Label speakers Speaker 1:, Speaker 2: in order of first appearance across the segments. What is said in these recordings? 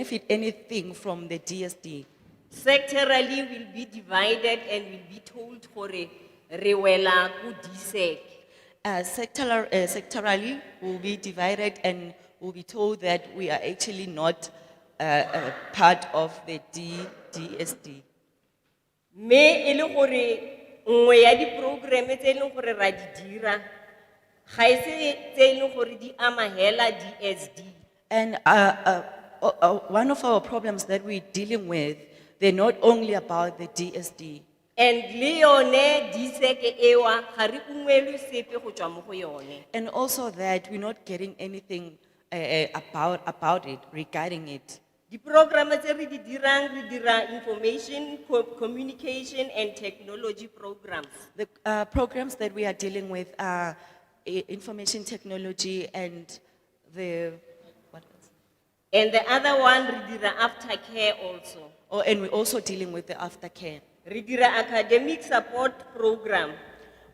Speaker 1: benefit anything from the DSD.
Speaker 2: Sectorally will be divided and will be told hore re wela ku E DSEC.
Speaker 1: Uh, sectoral, uh, sectorally will be divided and will be told that we are actually not uh, uh, part of the D, DSD.
Speaker 2: Me e le gore nngwe ya di programme tse e leng gore ra di dira ga e se tse e leng gore di ama hela DSD.
Speaker 1: And uh, uh, o- uh, one of our problems that we're dealing with, they're not only about the DSD.
Speaker 2: And le yone DSEC ewa ga re ungwelwe sepe go tswa mo go yone.
Speaker 1: And also that we're not getting anything uh, uh, about, about it, regarding it.
Speaker 2: Di programme tse re di dirang re dira information, co- communication and technology programs.
Speaker 1: The uh, programs that we are dealing with are i- information technology and the, what else?
Speaker 2: And the other one re dira aftercare also.
Speaker 1: Oh, and we're also dealing with the aftercare.
Speaker 2: Re dira academic support program,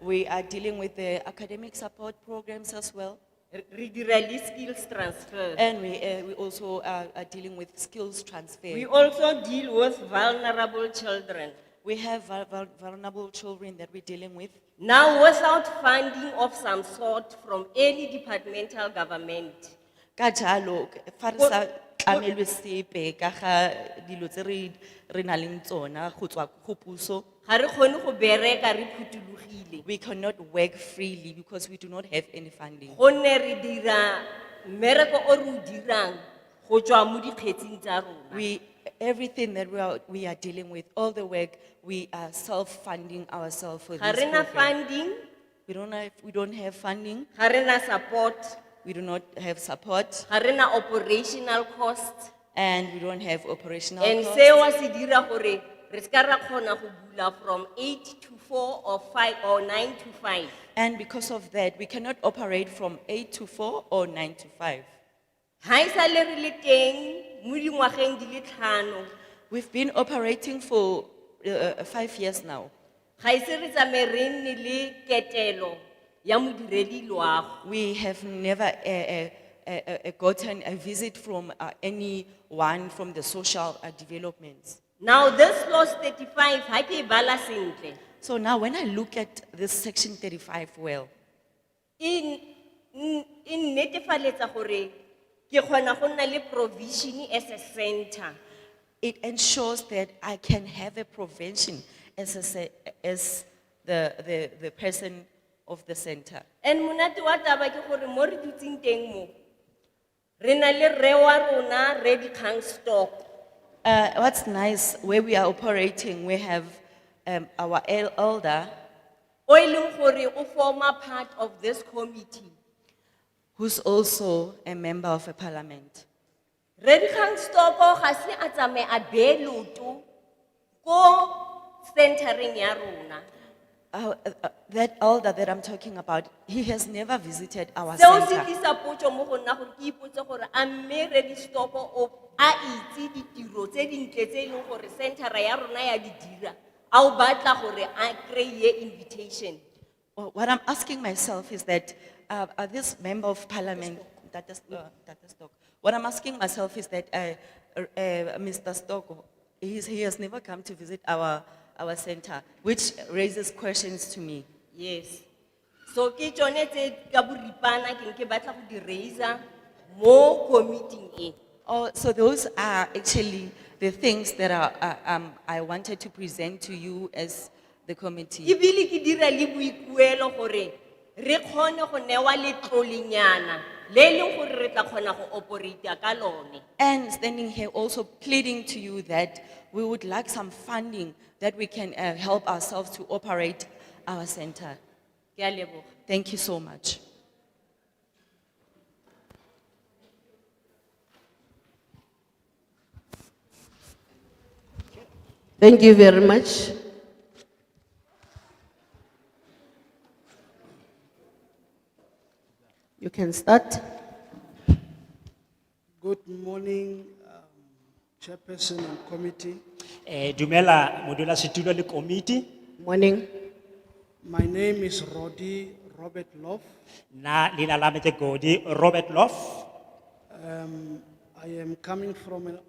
Speaker 1: We are dealing with the academic support programs as well.
Speaker 2: re dira le skills transfer.
Speaker 1: And we, uh, we also are, are dealing with skills
Speaker 2: We
Speaker 1: transfer.
Speaker 2: also deal with vulnerable children.
Speaker 1: We have vul- vul- vulnerable children that we're dealing with.
Speaker 2: Now without funding of some sort from any departmental government.
Speaker 1: Ka jalo, fa re
Speaker 2: Go-
Speaker 1: sa
Speaker 2: go-
Speaker 1: tlamelwe sepe ka ga dilo tse re- re nang le tsona go tswa go puso,
Speaker 2: Ga re kgone go bereka re phuthulogile.
Speaker 1: We cannot work freely because we do not have any funding.
Speaker 2: Gonne re dira mmereko o re o dirang go tswa mo dikgetsing tsa rona.
Speaker 1: We, everything that we are, we are dealing with, all the work, we are self-funding ourselves for
Speaker 2: Ga
Speaker 1: this
Speaker 2: re na
Speaker 1: program.
Speaker 2: funding,
Speaker 1: We don't have, we don't have funding,
Speaker 2: ga re na support,
Speaker 1: we do not have support,
Speaker 2: ga re na operational cost.
Speaker 1: and we don't have operational
Speaker 2: And
Speaker 1: costs.
Speaker 2: seo se dira gore re ska ra kgona go bula from eight to four or five or nine to five.
Speaker 1: And because of that, we cannot operate from eight to four or nine to five.
Speaker 2: Ha esale re le teng mo dingwageng di le tlhano,
Speaker 1: We've been operating for uh, five years now.
Speaker 2: ga ise re tsamaye re nne le ketelo ya modiredi loago.
Speaker 1: We have never eh, eh, eh, eh, eh, gotten a visit from uh, anyone from the social uh, developments.
Speaker 2: Now this clause thirty-five ha ke e bala sentle.
Speaker 1: So now when I look at this section thirty-five well,
Speaker 2: In, in, in netefaletsa e gore ke kgona go nna le provision as a center.
Speaker 1: it ensures that I can have a prevention as a, se- as the, the, the person of the center.
Speaker 2: And monate wa taba ke gore mo re dutseng teng mo re na le rre wa rona re dikgang stock
Speaker 1: Uh, what's nice, where we are operating, we have, um, our el- elder
Speaker 2: o e leng gore o former part of this committee.
Speaker 1: who's also a member of a parliament.
Speaker 2: Re dikgang stock ga se a tsamaye a beye loto ko centering ya rona.
Speaker 1: Uh, uh, uh, that elder that I'm talking about, he has never visited our
Speaker 2: Seo se
Speaker 1: center.
Speaker 2: tlisa potso mo go nna gore ke ipotse gore a mme re di stock o a itse ditiro tse dintle tse e leng gore centera ya rona ya di dira. A o batla gore a kry-e invitation.
Speaker 1: Well, what I'm asking myself is that, uh, uh, this member of parliament, Tata S- uh, Tata Stock, what I'm asking myself is that, uh, uh, uh, Mr. Stock, he's, he has never come to visit our, our center, which raises questions to me.
Speaker 2: Yes. So ke tsone tse ka boripana ke nke batla go di raiser mo committing e.
Speaker 1: Oh, so those are actually the things that are, uh, um, I wanted to present to you as the committee.
Speaker 2: Ebile ke dira le boikuelo gore re kgone go newa letlolinyana le e leng gore re tla kgona go operate ka lone.
Speaker 1: And standing here also pleading to you that we would like some funding that we can uh, help ourselves to operate our center.
Speaker 2: Ke a leboga.
Speaker 1: Thank you so much.
Speaker 3: Thank you very much. You can start.
Speaker 4: Good morning, um, Chairperson and Committee.
Speaker 5: Eh, dumela modula situlo le committee,
Speaker 3: Morning.
Speaker 4: My name is Roddy Robert Love.
Speaker 5: na lina la me te godi Robert Love.
Speaker 4: Um, I am coming from an